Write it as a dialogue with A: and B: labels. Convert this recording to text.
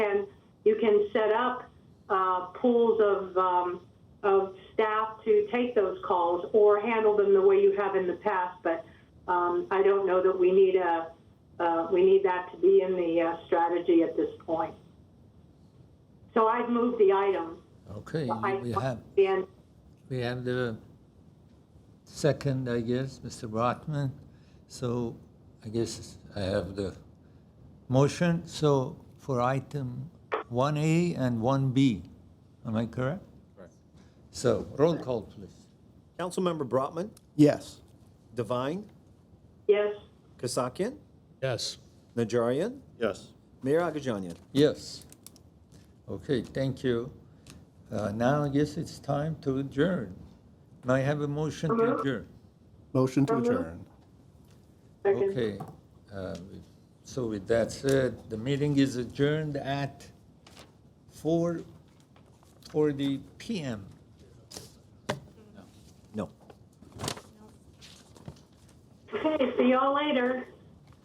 A: you can set up uh, pools of, um, of staff to take those calls or handle them the way you have in the past, but um, I don't know that we need a, uh, we need that to be in the uh, strategy at this point. So I've moved the item.
B: Okay,
A: I-
B: we have,
A: And
B: we have the second, I guess, Mr. Brotman. So I guess I have the motion, so for item 1A and 1B, am I correct?
C: Correct.
B: So roll call, please.
D: Councilmember Brotman,
E: Yes.
D: Devine,
A: yes,
D: Kasakian,
F: Yes.
D: Najarian,
E: Yes.
D: Mayor Agajanian.
B: Yes. Okay, thank you. Uh, Now I guess it's time to adjourn. May I have a motion to adjourn?
E: Motion to
A: Mhm.
E: adjourn.
A: second.
B: Okay, uh, so with that said, the meeting is adjourned at 4:40 PM.
D: No.
A: Okay, see y'all later.